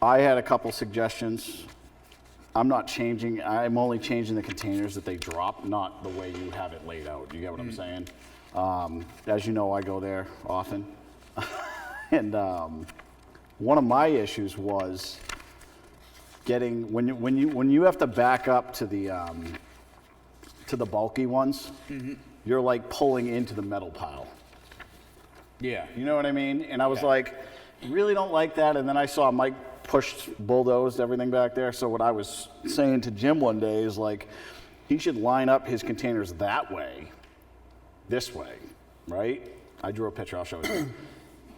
I had a couple suggestions. I'm not changing, I'm only changing the containers that they drop, not the way you have it laid out. You get what I'm saying? Um, As you know, I go there often. And um, one of my issues was getting, when you, when you, when you have to back up to the, um, to the bulky ones, you're like pulling into the metal pile. Yeah. You know what I mean? And I was Yeah. like, really don't like that. And then I saw Mike pushed, bulldozed everything back there. So what I was saying to Jim one day is like, he should line up his containers that way, this way, right? I drew a picture. I'll show it. to you.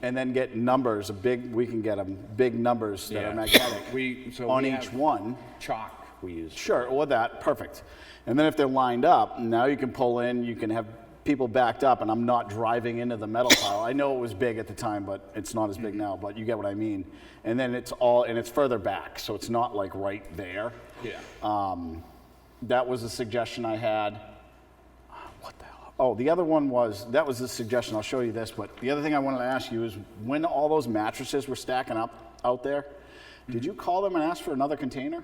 And then get numbers, a big. We can get them big numbers that Yeah. are magnetic We- so on we each have- one. Chalk we use. Sure, or that, perfect. And then if they're lined up, now you can pull in, you can have people backed up, and I'm not driving into the metal pile. I know it was big at the time, but it's not as big now, but you get what I mean. And then it's all, and it's further back, so it's not like right there. Yeah. Um, that was a suggestion I had. What the hell? Oh, the other one was, that was a suggestion, I'll show you this, but the other thing I wanted to ask you is when all those mattresses were stacking up out there, did you call them and ask for another container?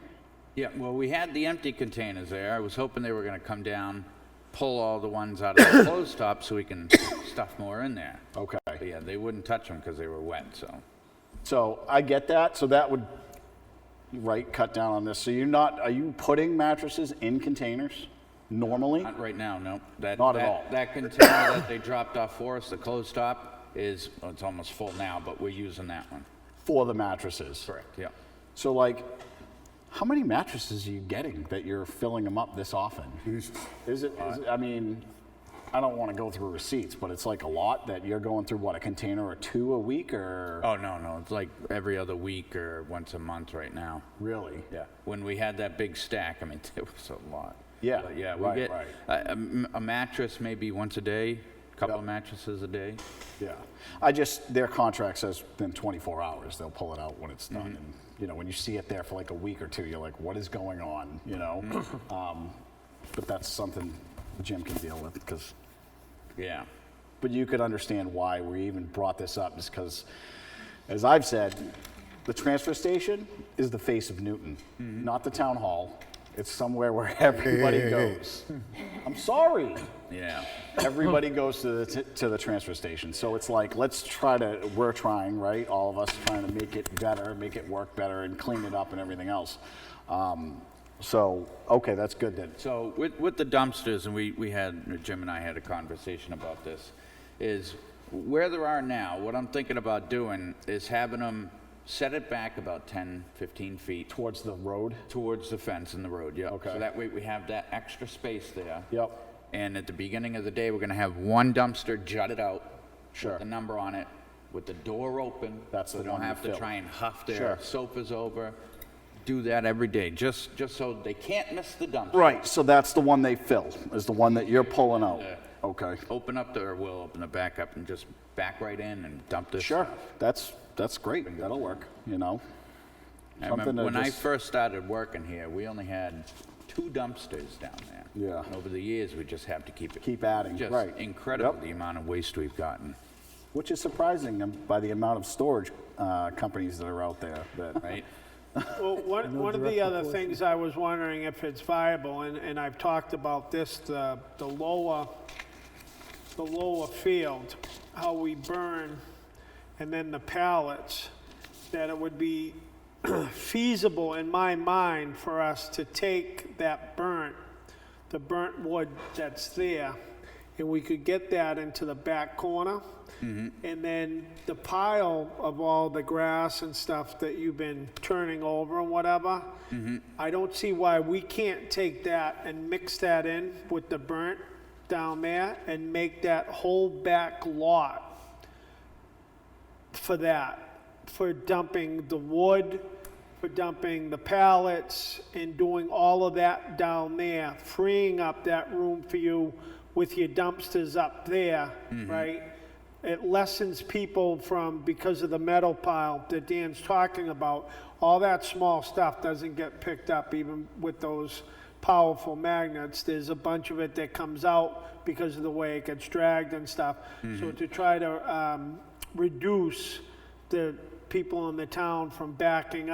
Yeah, well, we had the empty containers there. I was hoping they were gonna come down, pull all the ones out of the closed top so we can stuff more in there. Okay. But yeah, they wouldn't touch them because they were wet, so. So I get that. So that would, right, cut down on this. So you're not, are you putting mattresses in containers normally? Not right now, no. That- Not at that- all. That container that they dropped off for us, the closed top, is, well, it's almost full now, but we're using that one. For the mattresses. Correct. Yeah. So like, how many mattresses are you getting that you're filling them up this often? Is it, is it I mean, I don't want to go through receipts, but it's like a lot that you're going through, what, a container or two a week or? Oh, no, no, it's like every other week or once a month right now. Really? Yeah, when we had that big stack, I mean, it was a lot. Yeah, But yeah, we right, get right. a- a m- a mattress maybe once a day, a couple of mattresses a day. Yeah, I just, their contract says within 24 hours, they'll pull it out when it's done. And You know, when you see it there for like a week or two, you're like, what is going on, you know? Um, But that's something Jim can deal with, because, Yeah, but you could understand why we even brought this up, is because, as I've said, the transfer station is the face of Newton, not the town hall. It's somewhere where everybody goes. I'm sorry yeah, everybody goes to the, t- to the transfer station. So it's like, let's try to, we're trying, right? All of us trying to make it better, make it work better, and clean it up and everything else. Um, so, okay, that's good then. So with, with the dumpsters, and we, we had, Jim and I had a conversation about this, is where there are now, what I'm thinking about doing is having them set it back about 10, 15 feet Towards the road? towards the fence in the road, yeah. Okay. So that way we have that extra space there. Yep. And at the beginning of the day, we're gonna have one dumpster jutted out. Sure. With the number on it, with the door open. That's the So they don't one you have to fill. try and huff Sure. their sofas over. Do that every day, just, just so they can't miss the dumpster. Right, so that's the one they fill, is the one that you're pulling out. Okay. Open up the, or we'll open the back up and just back right in and dump this. Sure, that's, that's great. That'll work, you know? I Something to remember when I just- first started working here, we only had two dumpsters down there. Yeah. And over the years, we just have to keep it. Keep adding, just right. incredible, Yep. the amount of waste we've gotten, Which is surprising um, by the amount of storage uh, companies that are out there that right? Well, one, one of the other things I was wondering if it's viable, and, and I've talked about this, the, the lower, the lower field, how we burn, and then the pallets, that it would be feasible in my mind for us to take that burnt, the burnt wood that's there, and we could get that into the back corner. And then the pile of all the grass and stuff that you've been turning over and whatever, I don't see why we can't take that and mix that in with the burnt down there and make that whole back lot for that, for dumping the wood, for dumping the pallets, and doing all of that down there, freeing up that room for you with your dumpsters up there, right? It lessens people from, because of the metal pile that Dan's talking about, all that small stuff doesn't get picked up even with those powerful magnets. There's a bunch of it that comes out because of the way it gets dragged and stuff. So to try to um, reduce the people in the town from backing